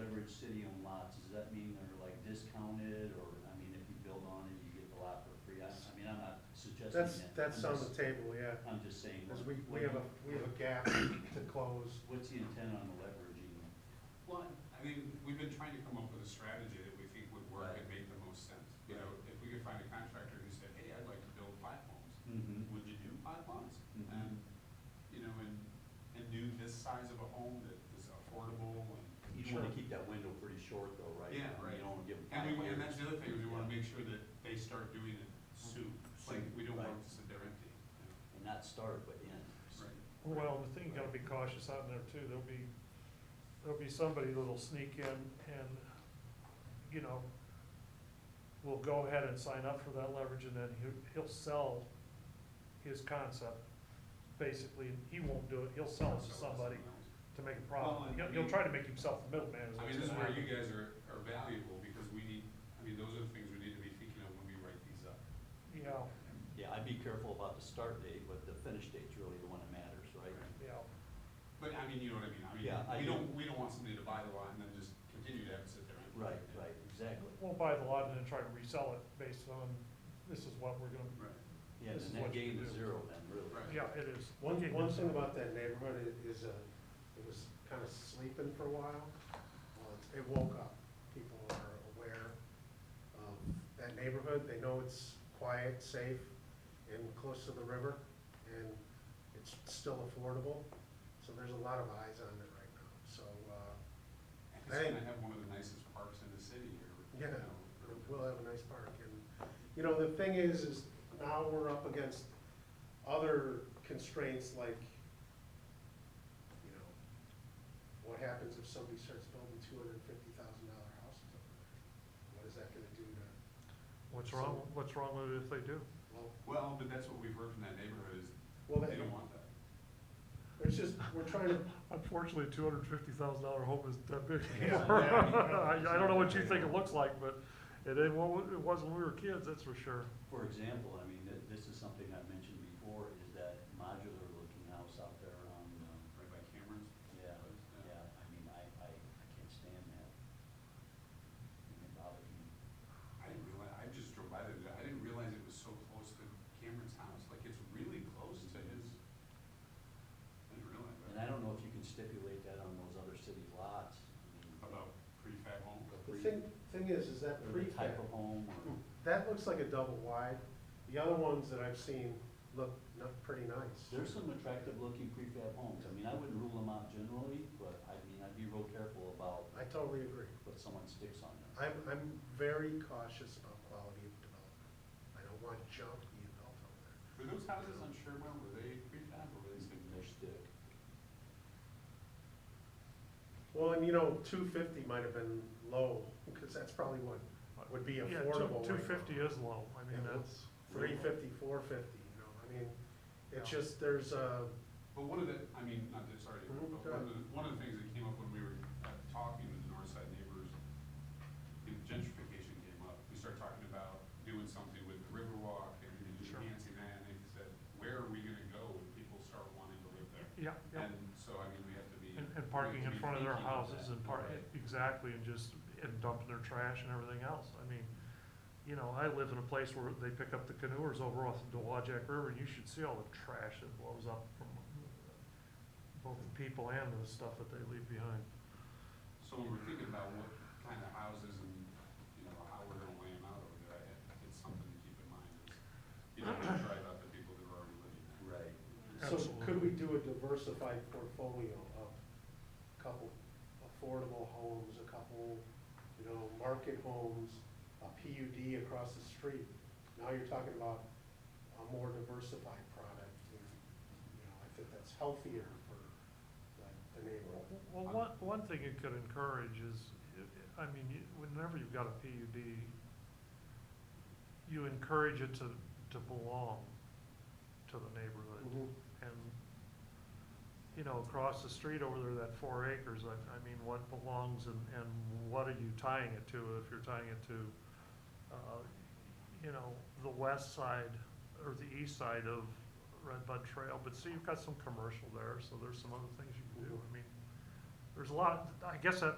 average city-owned lots, does that mean they're like discounted, or, I mean, if you build on it, you get the lot for free? I, I mean, I'm not suggesting that. That's, that's I'm on just- the table, yeah, I'm just saying. because we, what- we have a, we have a gap to close. What's the intent on the leveraging? Well, I mean, we've been trying to come up with a strategy that we think would work and make the most sense. You know, if we could find a contractor who said, hey, I'd like to build platforms, Mm-hmm. would you do platforms? And, you know, and, and do this size of a home that is affordable and. You wanna keep that window pretty short though, right? Yeah, I mean, right. You don't wanna give them. And five we, and years. that's the other thing, is we wanna make sure that they start doing it soon, like, we don't want Right. to sit there empty. you know. And not start, but end. Well, the thing you gotta be cautious out there too, there'll be, there'll be somebody that'll sneak in and, you know, will go ahead and sign up for that leverage and then he'll, he'll sell his concept. Basically, he won't do it, he'll sell it to So, somebody else. to make a Well, profit. and He'll, we- he'll try to make himself the middleman is I what's mean, this is gonna where you happen. guys are, are valuable, because we need, I mean, those are the things we need to be thinking of when we write these up. Yeah, Yeah, I'd be careful about the start date, but the finish date's really the one that matters, right? Right. yeah. But I mean, you know what I mean, I mean, Yeah, I we do. don't, we don't want somebody to buy the lot and then just continue to have it sit there. empty. Right, right, exactly. We'll buy the lot and then try to resell it based on, this is what we're gonna, Right. Yeah, This is and that what you game can is do. zero then, really. Right. yeah, it is. One, Okay, one good. thing about that neighborhood i- is, uh, it was kind of sleeping for a while. Well, it's- it woke up. People are aware of that neighborhood. They know it's quiet, safe, and close to the river, and it's still affordable. So there's a lot of eyes on it right now. So, uh, It's Hey. gonna have one of the nicest parks in the city here. you Yeah. know, we'll have a nice park. And, you know, the thing is, is now we're up against other constraints like, you know, what happens if somebody starts building two hundred and fifty thousand dollar houses over there? What is that gonna do to, What's wrong, what's wrong with it if they do? well, Well, but that's what we've heard from that neighborhood is, well, they don't that, want that. it's just, we're trying to, Unfortunately, two hundred and fifty thousand dollar home isn't that big. Yeah. I, I don't know what you think it looks like, but it ain't what it was when we were kids, that's for sure. For example, I mean, th- this is something I've mentioned before, is that modular looking house out there on, um, Right by Cameron's. uh, yeah, yeah, I mean, I, I, I can't stand that. And It bothers me. I didn't realize, I just drove by there, today. I didn't realize it was so close to Cameron's house, like, it's really close to his. I didn't realize And I that. don't know if you can stipulate that on those other city lots. I mean, About prefab home. the the free- thing, thing is, is that or the prefab, Hmm. type of home or. that looks like a double wide. The other ones that I've seen look not pretty nice. There's some attractive looking prefab homes. I mean, I wouldn't rule them out generally, but I mean, I'd be real careful about I totally agree. what someone sticks on them. I'm, I'm very cautious about quality of development. I don't want junk being built over there. Were those houses on Sherburne, were they prefab or were they And single? They stick. Well, and you know, two fifty might have been low, because that's probably what would be Yeah, affordable Two fifty is low, I mean, that's, Three fifty, four fifty, you know, I mean, it's Yeah. just, there's a, But one of the, I mean, not that, sorry, but Mhm, Mm-hmm, go one of the, one of the things that came up when we were uh, talking to the Northside neighbors, you know, gentrification came up, we started talking about doing something with the Riverwalk and Sure. enhancing that, and they said, where are we gonna go when people start wanting to live there? yeah, yeah. And so, I mean, we have to be. And, we and have parking to in be front of their thinking of houses that. and park, exactly, and just, and dumping their trash and everything else, I mean, you know, I live in a place where they pick up the canoers over off the Dewajak River, and you should see all the trash that blows up from both the people and the stuff that they leave behind. So when we're thinking about what kind of houses and, you know, how we're gonna lay them out over there, I- it's something to keep in mind, is you don't wanna drive out the people that are already living there. Right. so could Absolutely. we do a diversified portfolio of a couple affordable homes, a couple, you know, market homes, a PUD across the street? Now you're talking about a more diversified product, and, you know, I think that's healthier for the- the neighborhood. Well, one, one thing it could encourage is, i- I mean, you- whenever you've got a PUD, you encourage it to, to belong to the neighborhood. And, you know, across the street over there, that four acres, I, I mean, what belongs and, and what are you tying it to? If you're tying it to, uh, you know, the west side or the east side of Red Bud Trail, but see, you've got some commercial there, so there's some other things you can do. I mean, there's a lot, I guess that